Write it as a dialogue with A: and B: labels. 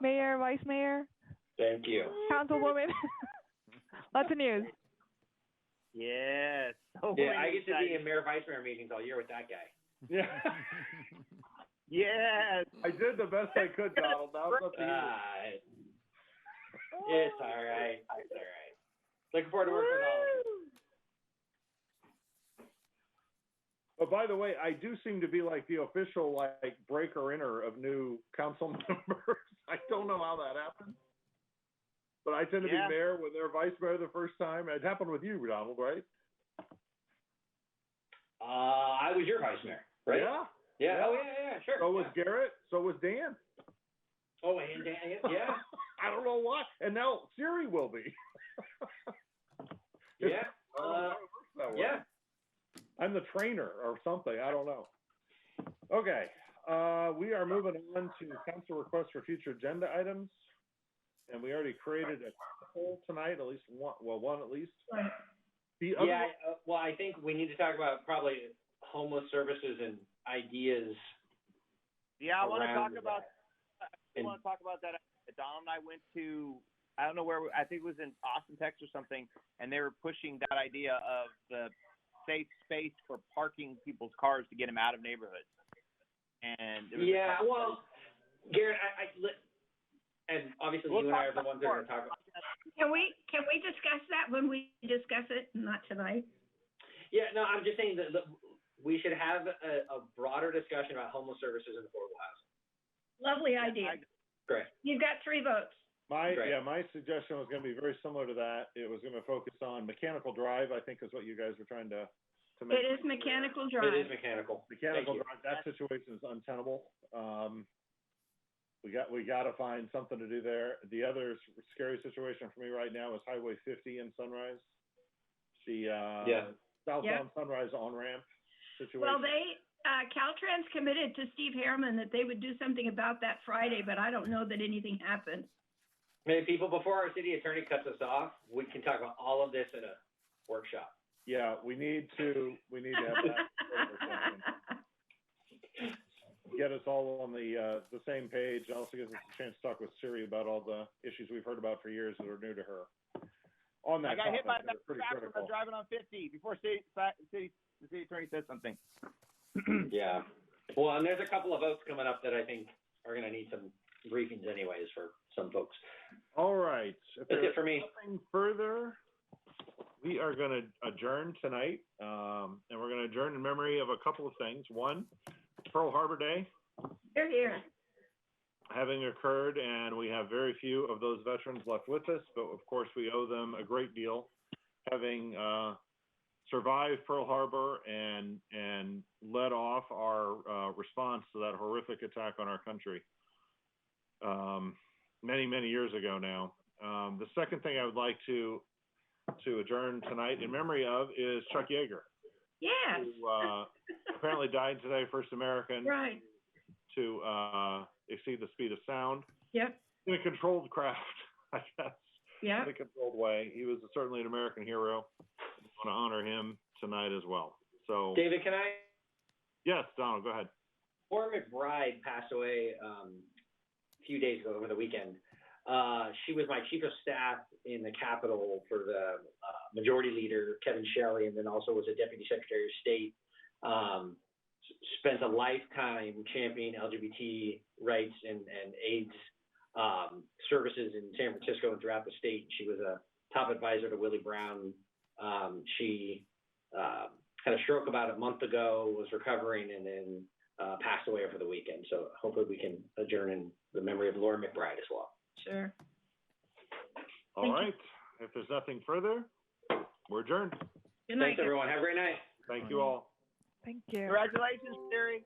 A: Mayor, Vice Mayor,
B: Thank you.
A: Councilwoman. Lots of news.
C: Yes. So
B: Yeah, I
C: many
B: get to be in
C: exciting-
B: mayor vice mayor meetings all year with that guy.
D: Yeah.
C: Yes.
D: I did the best I could, Donald. Now it's up to you.
B: Ah, it- it's all right. It's all right. Looking forward to working with all of you.
D: But by the way, I do seem to be like the official like breaker inner of new council members. I don't know how that happened. But I tend to
C: Yeah.
D: be mayor when they're vice mayor the first time. It happened with you, Donald, right?
B: Uh, I was your vice mayor, right?
D: Yeah.
B: Yeah.
D: Yeah.
B: Oh yeah, yeah, sure.
D: So was
B: yeah.
D: Garrett. So was Dan.
B: Oh, and Dan, yeah,
D: I don't know why. And now Siri will be.
B: yeah, Uh,
D: It's- I don't know why it works that way.
B: yeah.
D: I'm the trainer or something. I don't know. Okay. Uh, we are moving on to council requests for future agenda items. And we already created a poll tonight, at least one, well, one at least. The other,
B: Yeah, uh, well, I think we need to talk about probably homeless services and ideas
C: Yeah, I want to talk
B: around
C: about. I
B: And-
C: want to talk about that. Donald and I went to. I don't know where. We, I think it was in Austin, Texas, or something, and they were pushing that idea of the safe space for parking people's cars to get them out of neighborhoods. And there was a
B: Yeah,
C: couple
B: well, Garrett, I, I li- and obviously
C: We'll
B: you and I
C: talk
B: are the
C: about
B: ones that are going to talk
C: parks.
B: about.
E: Can we, can we discuss that when we discuss it? Not tonight.
B: Yeah, no, I'm just saying that, that we should have a, a broader discussion about homeless services and affordable housing.
E: Lovely
C: places.
E: idea.
C: I-
B: Great.
E: You've got three votes.
D: my,
B: Right.
D: yeah, my suggestion was going to be very similar to that. It was going to focus on mechanical drive, I think is what you guys were trying to, to make.
E: It is mechanical
B: It is
E: drive.
B: mechanical.
D: Mechanical
B: Thank you.
D: drive, that situation is untenable. Um, we got, we gotta find something to do there. The other s- scary situation for me right now is Highway fifty in Sunrise. The, uh,
B: Yeah.
D: southbound Sunrise on-ramp situation.
E: Well, they, uh, Caltrans committed to Steve Harriman that they would do something about that Friday, but I don't know that anything happened.
B: Maybe people, before our city attorney cuts us off, we can talk about all of this in a workshop.
D: Yeah, we need to, we need to have that. Get us all on the, uh, the same page. It Also gives us a chance to talk with Siri about all the issues we've heard about for years that are new to her. On
C: I
D: that
C: got
D: topic,
C: hit by
D: they're
C: a
D: pretty
C: tractor
D: critical.
C: while driving on 50 before city, city, the city attorney says something.
B: Yeah. Well, and there's a couple of votes coming up that I think are going to need some briefings anyways for some folks.
D: All right. If
B: That's
D: there-
B: it for me.
D: nothing further, we are going to adjourn tonight, um, and we're going to adjourn in memory of a couple of things. One, Pearl Harbor Day
E: They're here.
D: having occurred, and we have very few of those veterans left with us, but of course we owe them a great deal, having uh, survived Pearl Harbor and and led off our uh, response to that horrific attack on our country um, many many years ago now. Um, the second thing I would like to to adjourn tonight in memory of is Chuck Yeager,
E: Yes,
D: who uh, apparently died today, first American
E: right.
D: to uh, exceed the speed of sound.
E: Yep.
D: In a controlled craft, I guess,
E: Yep.
D: in a controlled way. He was certainly an American hero. I want to honor him tonight as well. So,
B: David, can I?
D: yes, Donald, go ahead.
B: Laura McBride passed away um, a few days ago over the weekend. Uh, she was my chief of staff in the Capitol for the uh, Majority Leader Kevin Shelley, and then also was a Deputy Secretary of State. Um, s- spent a lifetime championing LGBT rights and, and AIDS um, services in San Francisco and throughout the state. She was a top advisor to Willie Brown. Um, she uh, had a stroke about a month ago, was recovering, and then uh, passed away over the weekend. So hopefully we can adjourn in the memory of Laura McBride as well.
E: Sure.
D: All
E: Thank you.
D: right. If there's nothing further, we're adjourned.
E: Good night.
B: Thanks, everyone. Have a great night.
D: Thank you all.
A: Thank you.
C: Congratulations, Siri.